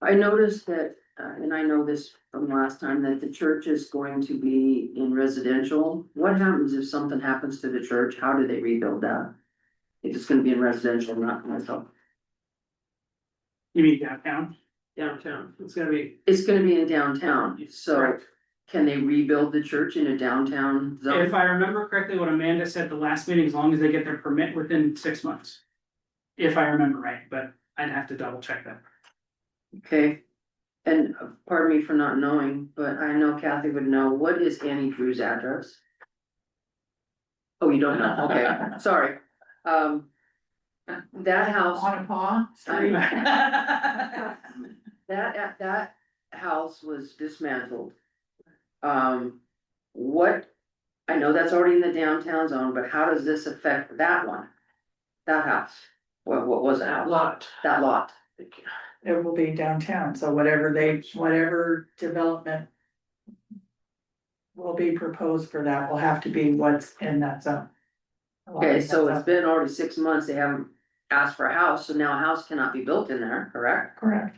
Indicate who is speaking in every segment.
Speaker 1: I noticed that, uh, and I know this from last time, that the church is going to be in residential. What happens if something happens to the church? How do they rebuild that? If it's gonna be in residential, not commercial.
Speaker 2: You mean downtown?
Speaker 3: downtown, it's gonna be.
Speaker 1: It's gonna be in downtown, so can they rebuild the church in a downtown
Speaker 2: If
Speaker 1: zone?
Speaker 2: I remember correctly, what Amanda said the last meeting, as long as they get their permit within six months. If I remember right, but I'd have to double check that.
Speaker 1: Okay. And uh, pardon me for not knowing, but I know Kathy would know. What is Annie Drew's address? Oh, you don't know? Okay, sorry. Um. That house.
Speaker 3: a paw?
Speaker 1: Street. That, that- that house was dismantled. Um, what, I know that's already in the downtown zone, but how does this affect that one? That house, what, what was that house,
Speaker 3: Lot.
Speaker 1: that lot?
Speaker 4: it will be downtown, so whatever they, whatever development. Will be proposed for that will have to be what's in that zone.
Speaker 1: Okay, so it's been already six months, they haven't asked for a house, so now a house cannot be built in there, correct?
Speaker 4: Correct,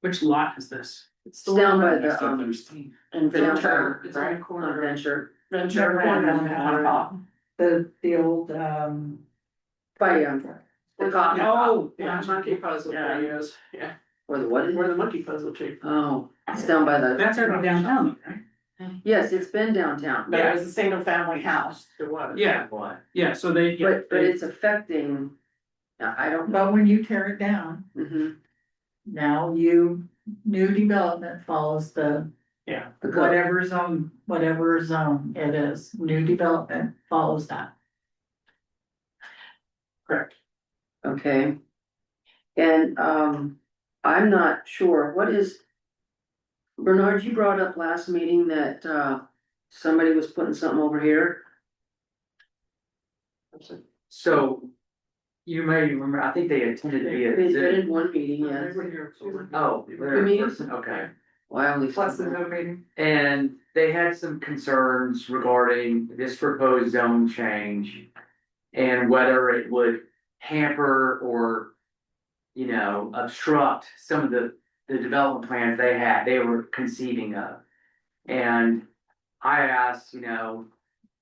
Speaker 2: Which lot is this?
Speaker 3: It's
Speaker 1: It's down by the, um,
Speaker 3: Thursday.
Speaker 1: in Ventura,
Speaker 3: It's on the
Speaker 1: right?
Speaker 3: corner.
Speaker 1: On Venture,
Speaker 3: Venture corner.
Speaker 4: the, the old, um.
Speaker 1: by, um, the coffee shop,
Speaker 2: Oh,
Speaker 3: Yeah,
Speaker 2: yeah,
Speaker 3: monkey puzzle
Speaker 1: Yeah.
Speaker 3: thing is, yeah,
Speaker 1: or the what? is
Speaker 3: where
Speaker 1: it?
Speaker 3: the monkey puzzle tree.
Speaker 1: Oh, it's down by the,
Speaker 2: that's already downtown, right?
Speaker 1: yes, it's been downtown.
Speaker 3: But it
Speaker 2: Yeah.
Speaker 3: was a single family house. It was.
Speaker 2: Yeah. Yeah, so they. yeah,
Speaker 1: But, but
Speaker 2: they-
Speaker 1: it's affecting, I I don't,
Speaker 4: But when you tear it down,
Speaker 1: mhm,
Speaker 4: now you, new development follows the
Speaker 2: Yeah,
Speaker 1: the code.
Speaker 4: whatever zone, whatever zone it is, new development follows that.
Speaker 2: correct.
Speaker 1: okay? And, um, I'm not sure, what is? Bernard, you brought up last meeting that, uh, somebody was putting something over here,
Speaker 5: So you may remember, I think they intended to
Speaker 1: they
Speaker 5: be a,
Speaker 1: did
Speaker 5: exhibit.
Speaker 1: in one meeting, yes,
Speaker 2: Uh,
Speaker 5: oh,
Speaker 1: You
Speaker 5: they're a
Speaker 1: mean?
Speaker 5: person, okay. Mm-hmm.
Speaker 1: why only?
Speaker 3: Plus the no meeting.
Speaker 5: And they had some concerns regarding this proposed zone change and whether it would hamper or, you know, obstruct some of the, the development plans they had, they were conceiving of. And I asked, you know,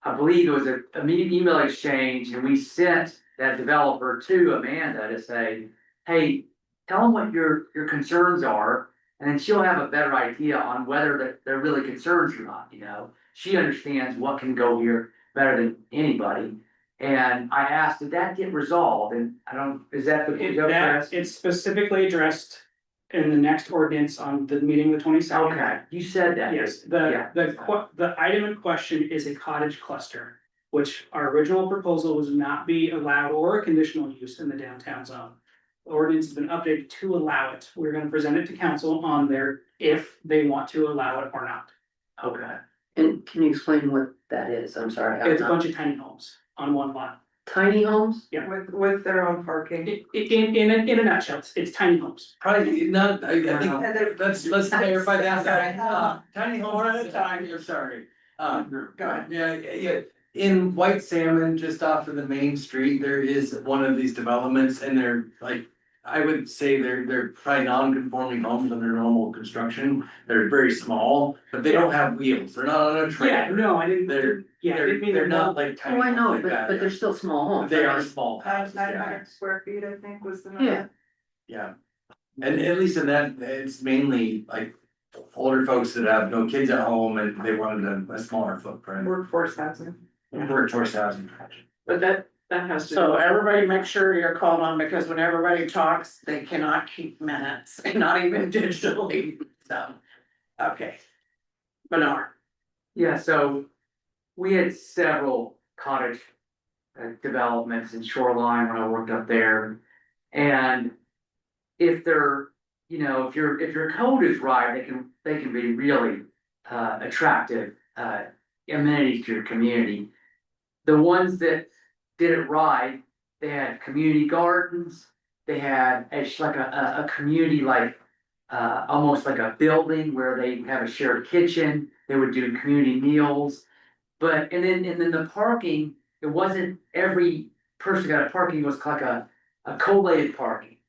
Speaker 5: I believe it was a, a meeting email exchange and we sent that developer to Amanda to say, hey, tell them what your, your concerns are. And then she'll have a better idea on whether that they're really concerns or not, you know? She understands what can go here better than anybody. And I asked, did that get resolved? And I don't, is that the?
Speaker 2: It,
Speaker 5: is that what you're
Speaker 2: that,
Speaker 5: asking?
Speaker 2: it's specifically addressed in the next ordinance on the meeting, the twenty second.
Speaker 5: Okay, you said that.
Speaker 2: Yes, the,
Speaker 5: Yeah.
Speaker 2: the que- the item in question is a cottage cluster, which our original proposal was not be allowed or a conditional use in the downtown zone. The Ordinance has been updated to allow it. We're gonna present it to council on their, if they want to allow it or not.
Speaker 5: Okay,
Speaker 1: And can you explain what that is, I'm sorry, I'm
Speaker 2: It's a
Speaker 1: not,
Speaker 2: bunch of tiny homes on one lot.
Speaker 1: tiny homes?
Speaker 2: Yeah.
Speaker 3: With, with their own parking.
Speaker 2: In, in, in a- in a nutshell, it's- it's tiny homes.
Speaker 6: Probably not, I I think,
Speaker 3: And they're-
Speaker 6: let's let's clarify that, Uh, tiny home.
Speaker 3: One at a time.
Speaker 6: You're sorry, um,
Speaker 3: Go ahead.
Speaker 6: yeah, yeah, yeah. in White Salmon, just off of the main street, there is one of these developments and they're like. I would say they're they're probably non-conforming homes under normal construction, they're very small, but they don't have wheels, they're not on a
Speaker 2: Yeah,
Speaker 6: trailer.
Speaker 2: no, I didn't,
Speaker 6: They're-
Speaker 2: yeah, I didn't mean
Speaker 6: They're
Speaker 2: they're
Speaker 6: not
Speaker 2: not.
Speaker 6: like tiny
Speaker 1: Oh, I
Speaker 6: homes
Speaker 1: know,
Speaker 6: like
Speaker 1: but,
Speaker 6: that,
Speaker 1: but
Speaker 6: yeah.
Speaker 1: they're still small homes.
Speaker 6: They are small
Speaker 3: Nine
Speaker 6: houses, yeah.
Speaker 3: hundred square feet, I think, was the
Speaker 1: Yeah.
Speaker 3: number.
Speaker 6: Yeah, and at least in that, it's mainly like older folks that have no kids at home and they wanted a, a smaller footprint.
Speaker 3: Workforce housing.
Speaker 6: Workforce housing.
Speaker 3: But that, that has to. So everybody make sure you're called on because when everybody talks, they cannot keep minutes, not even digitally, so, okay. Bernard.
Speaker 5: yeah, so we had several cottage uh, developments in Shoreline when I worked up there. And if they're, you know, if your, if your code is right, they can, they can be really uh attractive uh amenities to your community. The ones that did it right, they had community gardens, they had, it's like a, a, a community like uh, almost like a building where they have a shared kitchen, they would do community meals. But, and then, and then the parking, it wasn't every person got a parking, it was like a, a collated parking.